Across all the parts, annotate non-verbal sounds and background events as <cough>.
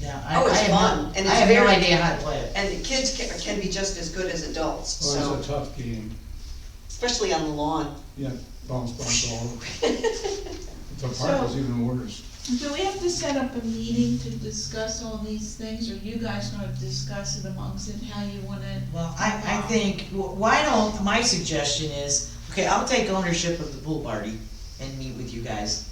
Yeah, I, Oh, I it's have fun, no, and I it's have no very- idea how to play it. And the kids can, can be just as good as adults, Or so, it's a tough game, especially on the lawn. yeah, bounce, bounce all over. The park was even worse. Do we have to set up a meeting to discuss all these things, or you guys gonna discuss it amongst it, how you wanna? Well, I, I think, wh- why don't, my suggestion is, okay, I'll take ownership of the pool party and meet with you guys.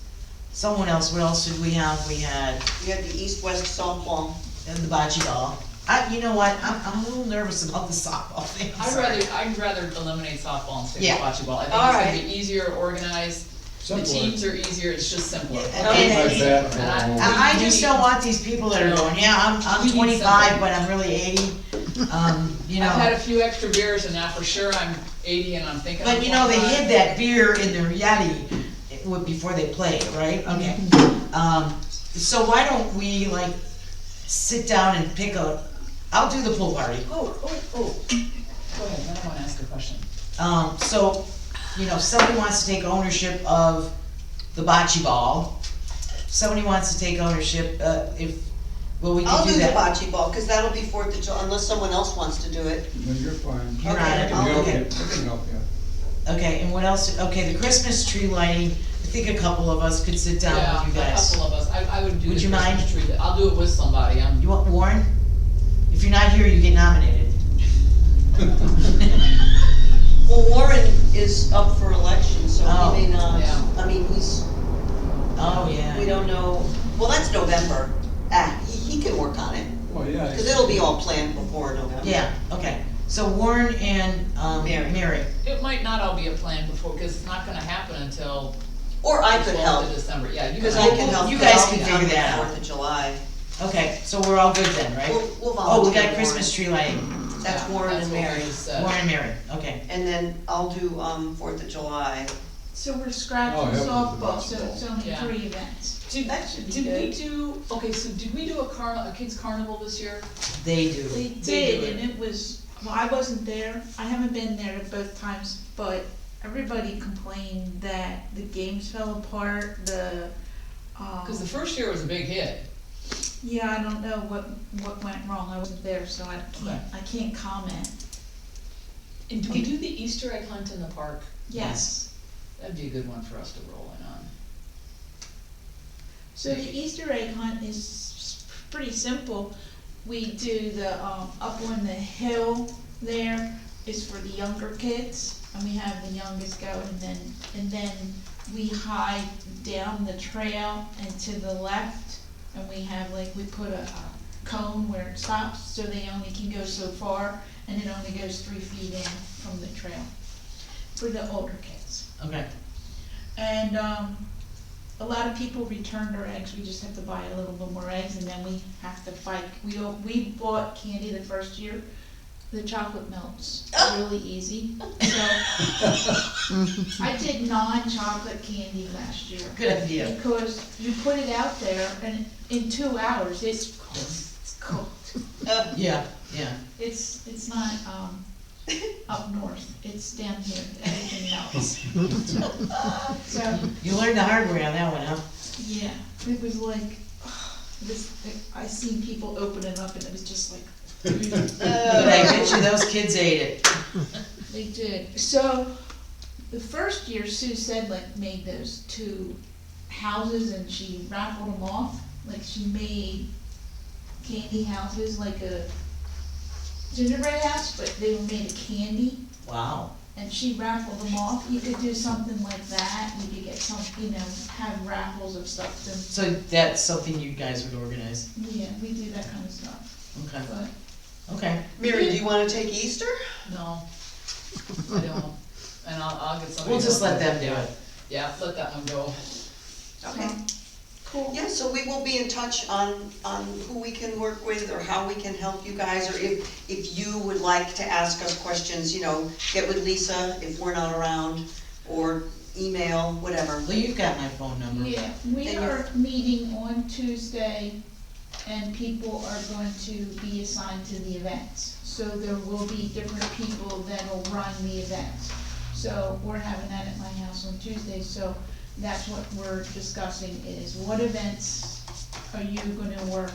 Someone else, what else did we have? We had <laughs> You have the east-west softball. uh, the bocce ball. I, you know what, I'm, I'm a little nervous about the softball thing. I'd rather, I'd rather eliminate softball and stick Yeah. with bocce ball. I All think it's right. gonna be easier organized, the teams Simpler. are easier, it's just simpler. Yeah, Okay. Like that, And I- all over. I, I just don't want these people that are going, yeah, I'm, We I'm need twenty-five, something. but I'm really eighty, um, you know. I've had a few extra beers and now for sure I'm eighty and I'm thinking. But I'm you know, they 25. hid that beer in their yeti w- before they played, right? Okay. Mm-hmm. Um, so why don't we like sit down and pick a, I'll do the pool party. Oh, oh, oh. Go ahead, then I wanna ask a question. Um, so, you know, if somebody wants to take ownership of the bocce ball. Somebody wants to take ownership, uh, if, well, we I'll can do do the that. bocce ball, cause that'll be Fourth of July, unless someone else wants to do it. No, you're fine. You're Okay, on it. We can help okay. you, we can help you. Okay, and what else? Okay, the Christmas tree lighting, I think a couple of us could sit down with you Yeah, a guys. couple of us, I, I would do the Would you mind? Christmas tree, I'll do it with somebody, I'm, You want Warren? If you're not here, you get nominated. Well, Warren is up for election, so Oh, he may not, yeah. I mean, he's, <laughs> Oh, yeah. we don't know, well, that's November. Ah, he, he can work on it, <laughs> Well, yeah. cause it'll be all planned before November. Yeah, okay. So Warren and, um, Mary. Mary. it might not all be a plan before, cause it's not gonna happen until Or I could twelfth of help, December, yeah. you cause and I I- can help. You 'cause guys I'll can be figure on the that out. Fourth of July. Okay, so we're all good then, right? We'll, we'll volunteer Oh, we got Warren. Uh, Christmas tree lighting. That's Yeah, Warren that's and what we Mary. just said. Warren and Mary, okay. And then I'll do, um, Fourth of July. So we're Oh, scratching yeah, softball, so possible. it's only Yeah. three events. Did, That should be did we good. do, okay, so did we do a carnival, a kids carnival this year? They do. They did, and it was, well, I wasn't there, I haven't been there both times, but everybody complained that the games fell apart, the, um. Cause the first year was a big hit. Yeah, I don't know what, what went wrong, I wasn't there, so I can't, I can't comment. And do we do the Easter egg hunt in the park? Yes. That'd be a good one for us to roll in on. So the Easter egg hunt is s- pretty simple. We do the, um, up on the hill there is for the younger kids, and we have the youngest go, and then, and then we hide down the trail and to the left, and we have like, we put a uh, cone where it stops, so they only can go so far, and it only goes three feet in from the trail, for the older kids. Okay. And um, a lot of people returned our eggs, we just have to buy a little bit more eggs and then we have to fight. We, all- we bought candy the first year, the chocolate melts really easy, so. I did non-chocolate candy last year. Good idea. Because you put it out there and in two hours, it's it's cooked. Yeah, yeah. It's, it's not um, up north, it's down here, everything melts. So. You learned the hard way on that one, huh? Yeah, it was like, <sighs> this, I seen people open it up and it was just like, Uh, But I bet you those kids ate it. <laughs> they did. So, the first year Sue said like made those two houses and she raffled them off, like she made candy houses, like a gingerbread house, but they were made of candy. Wow. and she raffled them off. You could do something like that, you could get some, you know, have raffles of stuff to, So that's something you guys would organize. yeah, we do that kind of stuff, Okay, but. okay. Mary, do you wanna take Easter? No, I don't, and I'll, I'll get somebody. We'll just else. let them do it. Yeah, let that one go. Okay. Cool. Yeah, so we will be in touch on, on who we can work with, or how we can help you guys, or if, if you would like to ask us questions, you know, get with Lisa if we're not around, or email, whatever. Well, you've got my phone number. Yeah, we And are meeting on Tuesday, and people are going to be assigned to the events. So there will be different people that'll run the events. So we're having that at my house on Tuesday, so that's what we're discussing is what events are you gonna work